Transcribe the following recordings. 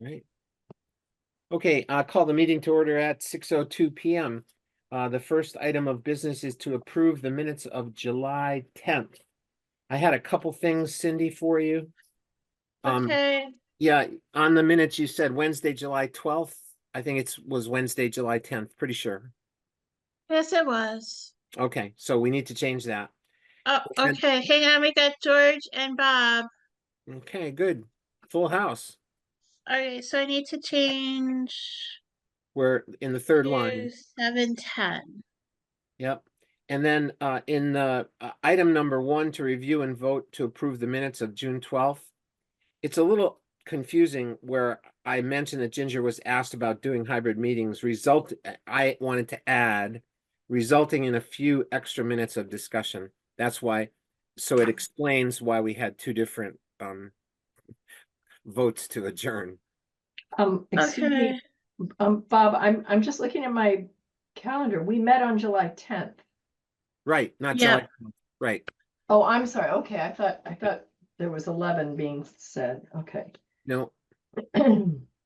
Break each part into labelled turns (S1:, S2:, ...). S1: Right. Okay, uh, call the meeting to order at six oh two PM. Uh, the first item of business is to approve the minutes of July tenth. I had a couple things, Cindy, for you. Um,
S2: Okay,
S1: yeah, on the minutes you said Wednesday, July twelfth. I think it's, was Wednesday, July tenth, pretty sure.
S2: yes, it was.
S1: Okay, so we need to change that.
S2: Oh,
S1: Okay.
S2: okay, hang on, we got George and Bob.
S1: Okay, good. Full house.
S2: Alright, so I need to change
S1: We're in the third line.
S2: to seven ten.
S1: Yep. And then uh, in the uh, item number one, to review and vote to approve the minutes of June twelfth. It's a little confusing where I mentioned that Ginger was asked about doing hybrid meetings result, I wanted to add resulting in a few extra minutes of discussion. That's why, so it explains why we had two different um votes to adjourn.
S3: Um, excuse
S2: Okay,
S3: me, um, Bob, I'm, I'm just looking at my calendar. We met on July tenth.
S1: Right, not
S2: Yeah.
S1: July, 12th, right.
S3: Oh, I'm sorry. Okay, I thought, I thought there was eleven being said. Okay.
S1: No,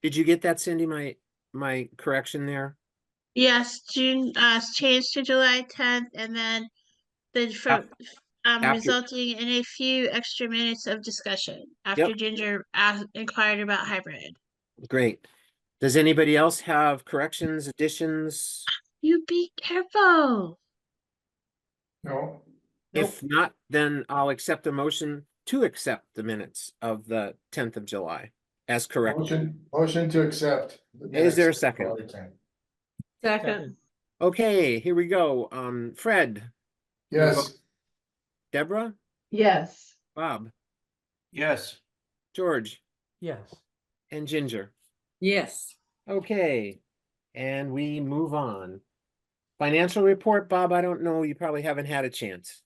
S1: did you get that, Cindy? My, my correction there?
S2: yes, June, uh, s- change to July tenth and then the from, um,
S1: after-
S2: resulting in a few extra minutes of discussion after Ginger asked, inquired about hybrid.
S1: Great. Does anybody else have corrections, additions?
S2: You be careful.
S4: No.
S1: If not, then I'll accept a motion to accept the minutes of the tenth of July as
S4: Nope.
S1: correct.
S4: Motion, motion to accept.
S1: Is there a second?
S2: Second.
S1: Okay, here we go. Um, Fred,
S4: Yes,
S1: Deborah,
S3: Yes,
S1: Bob,
S5: Yes.
S1: George,
S5: Yes.
S1: and Ginger.
S6: Yes,
S1: Okay, and we move on. Financial report, Bob, I don't know, you probably haven't had a chance.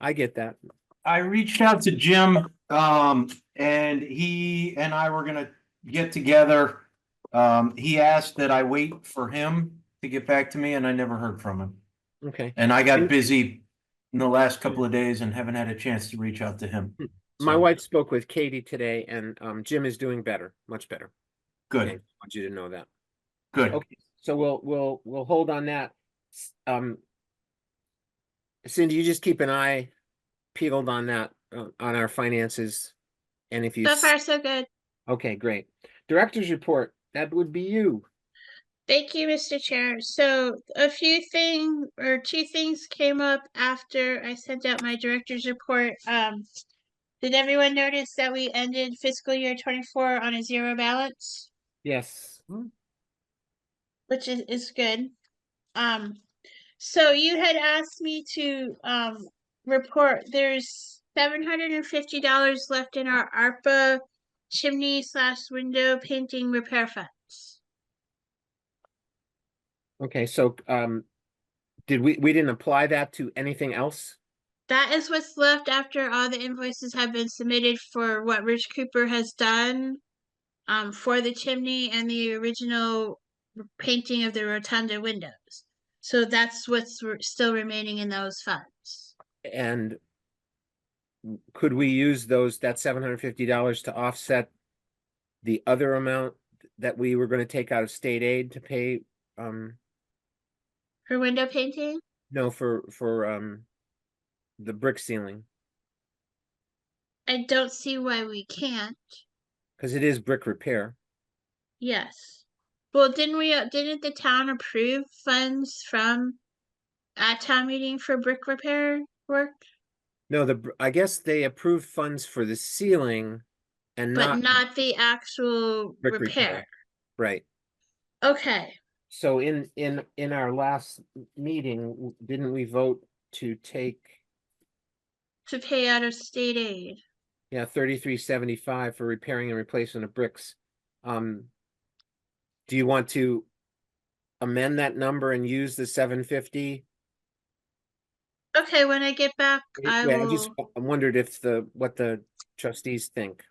S1: I get that.
S5: I reached out to Jim, um, and he and I were gonna get together. Um, he asked that I wait for him to get back to me and I never heard from him.
S1: Okay.
S5: And I got busy in the last couple of days and haven't had a chance to reach out to him.
S1: My
S5: So,
S1: wife spoke with Katie today and um Jim is doing better, much better. Okay,
S5: Good,
S1: Want you to know that.
S5: good.
S1: Okay, so we'll, we'll, we'll hold on that. S- Um. Cindy, you just keep an eye peeled on that, uh, on our finances. And if you,
S2: So
S1: s-
S2: far, so good.
S1: okay, great. Director's report, that would be you.
S2: Thank you, Mr. Chair. So a few thing or two things came up after I sent out my director's report. Um, did everyone notice that we ended fiscal year twenty-four on a zero balance?
S1: Yes.
S2: which is, is good. Um, so you had asked me to, um, report, there's seven hundred and fifty dollars left in our ARPA chimney slash window painting repair funds.
S1: Okay, so um, did we, we didn't apply that to anything else?
S2: That is what's left after all the invoices have been submitted for what Rich Cooper has done um, for the chimney and the original r- painting of the rotunda windows. So that's what's re- still remaining in those funds.
S1: And w- could we use those, that seven hundred fifty dollars to offset the other amount that we were gonna take out of state aid to pay, um,
S2: For window painting?
S1: no, for, for, um, the brick ceiling,
S2: I don't see why we can't.
S1: because it is brick repair.
S2: Yes. Well, didn't we, uh, didn't the town approve funds from at town meeting for brick repair work?
S1: No, the, br- I guess they approved funds for the ceiling and
S2: But
S1: not,
S2: not the actual
S1: Brick repair.
S2: repair.
S1: right.
S2: Okay.
S1: So in, in, in our last m- meeting, w- didn't we vote to take,
S2: to pay out of state aid.
S1: yeah, thirty-three seventy-five for repairing and replacement of bricks? Um, do you want to amend that number and use the seven fifty?
S2: Okay, when I get back, I
S1: Yeah, I
S2: will.
S1: just w- wondered if the, what the trustees think.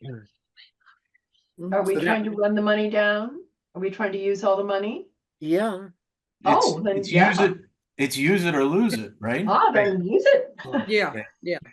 S1: Yeah. Mm,
S3: are we
S1: so that-
S3: trying to run the money down? Are we trying to use all the money?
S1: Yeah,
S5: It's-
S3: Oh, then
S5: it's
S3: yeah.
S5: use it- It's use it or lose it, right?
S3: Ah, then use it.
S6: yeah, yeah.